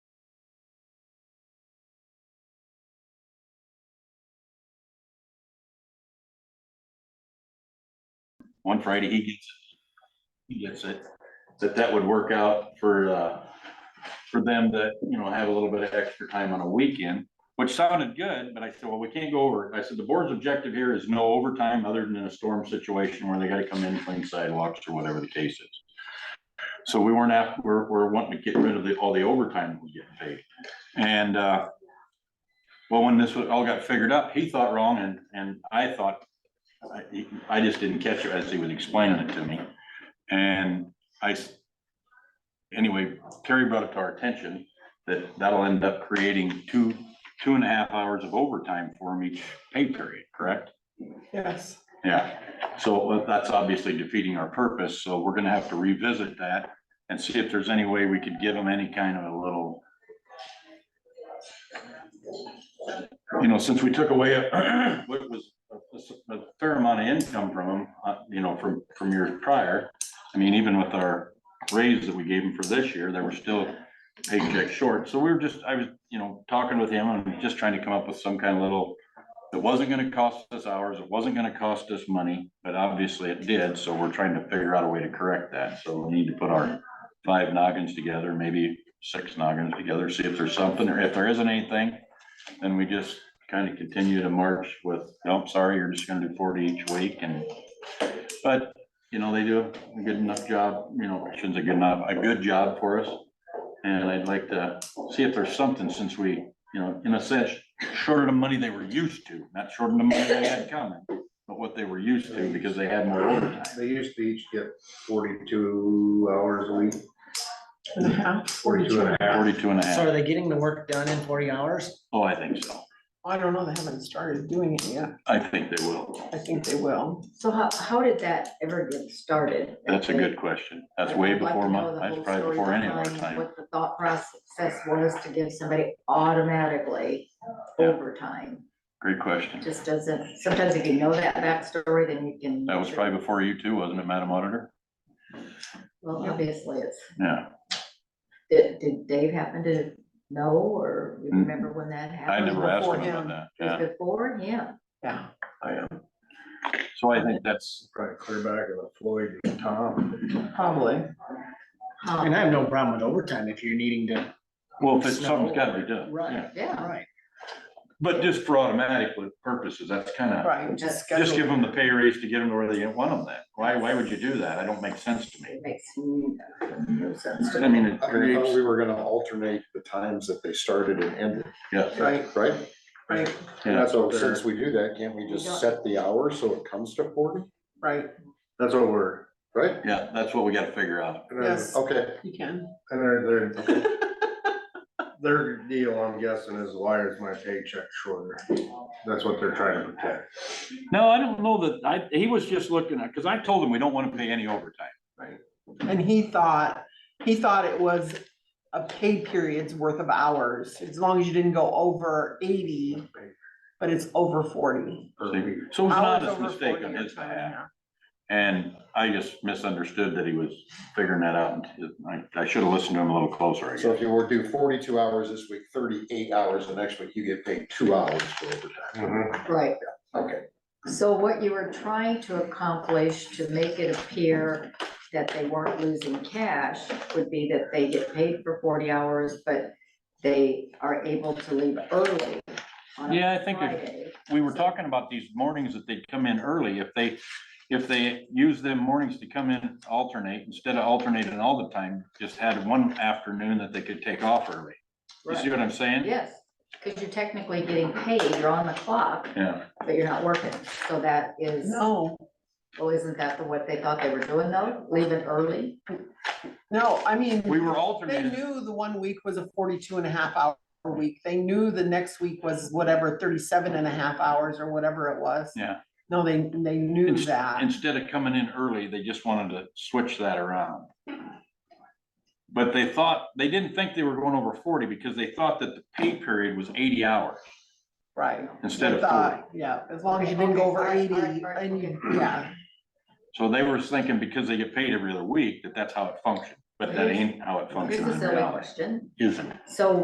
one Friday he gets, it. he gets it, that that would work out for, uh, for them that, you know, have a little bit of extra time on a weekend, which sounded good, but I said, well, we can't go over. it." I said, the board's objective here is no overtime other than in a storm situation where they gotta come in, clean sidewalks or whatever the case is. So we weren't after, we're, we're wanting to get rid of the, all the overtime we get paid. And, uh, well, when this was- all got figured up, he thought wrong and, and I thought, I, I just didn't catch it as he was explaining it to me. And I, s- anyway, Terry brought it to our attention that that'll end up creating two, two and a half hours of overtime for him each pay period, correct? Yes. Yeah, so uh, that's obviously defeating our purpose, so we're gonna have to revisit that and see if there's any way we could give them any kind of a little. You know, since we took away uh, what was a- a s- a fair amount of income from them, uh, you know, from, from years prior. I mean, even with our raise that we gave them for this year, they were still paycheck short, so we were just, I was, you know, talking with him and just trying to come up with some kind of little. It wasn't gonna cost us hours, it wasn't gonna cost us money, but obviously it did, so we're trying to figure out a way to correct that, so we need to put our. Five noggins together, maybe six noggins together, see if there's something, or if there isn't anything, then we just kind of continue to march with, no, I'm sorry, you're just gonna do forty each week and. But, you know, they do a good enough job, you know, I shouldn't say good enough, a good job for us. And I'd like to see if there's something, since we, you know, in a sense, shorter the money they were used to, not shorter the money they had coming, but what they were used to because they had more overtime. They used to each get forty-two hours a week, forty-two and a half. Forty-two and a So are half. they getting the work done in forty hours? Oh, I think so. I don't know, they haven't started doing it yet. I think they will. I think they will. So how, how did that ever get started? That's a good question. That's way I'd like to before my, know the that's whole probably story before any of our behind time. What the thought process was to give somebody automatically Yeah. overtime, Great question. just doesn't, sometimes if you know that backstory, then you can. That was probably before you too, wasn't it, Madam Auditor? Well, obviously, it's, Yeah, did, did Dave happen to know, or you Mm. remember when that I happened? never asked him about beforehand. that. It was Yeah, Before him, Yeah. um, so I think that's, Probably clear back to the Floyd and Tom. Probably. huh, And I have no problem with overtime if you're needing to. well, if it's something's gotta be done. Right. yeah. Um, yeah, Right. But just for automatic purposes, that's kind of, Right. Just just give schedule- them the pay raise to get them to where they want them then. Why, why would you do that? I don't make sense to me. it makes no no sense to I mean, it I thought creates, we were gonna alternate the times that they started and ended, yeah, Right, right? right, yeah, So since we do that, can't we just set the hour so it comes to forty, right. That's what we're, right? yeah, that's what we gotta figure out. and their- Yes. Okay, You can. and their, their, their deal, I'm guessing, is why is my paycheck shorter? That's what they're trying to protect. No, I don't know that, I, he was just looking at, cause I told him we don't wanna pay any overtime. And he thought, he thought it was a pay period's worth of hours, as long as you didn't go over eighty, but it's over forty. So it Mm-hmm. was an Hours honest over mistake 40 on or his time and a behalf. half. And I just misunderstood that he was figuring that out. and I, I should have listened to him a little closer, I so guess. if you were to do forty-two hours this week, thirty-eight hours the next week, you get paid two hours for overtime. Mhm. Right, Okay, So what you were trying to accomplish to make it appear that they weren't losing cash would be that they get paid for forty hours, but they are able to leave early on a Yeah, I think if- Friday. we were talking about these mornings that they'd come in early, if they, if they use them mornings to come in alternate, instead of alternating all the time, just had one afternoon that they could take off early. You see what I'm saying? Yes, because you're technically getting paid, you're on the clock, Yeah, but you're not working, so that is, No, well, isn't that the what they thought they were doing though, leaving early? no, I mean. we were They alternating, knew the one week was a 42 and a half hour week. They knew the next week was whatever 37 and a half hours or whatever it was. Yeah. No, they, they knew Inst- that. instead of coming in early, they just wanted to switch that around. But they thought, they didn't think they were going over forty because they thought that the pay period was eighty hours Right. instead They of forty. thought, Yeah, as long as you Okay, didn't go okay, over alright, 80 alright, alright, and you, okay. yeah, So they were thinking because they get paid every other week, that that's how it functioned, but that ain't how it Here's functioned a in silly reality, question, isn't it? so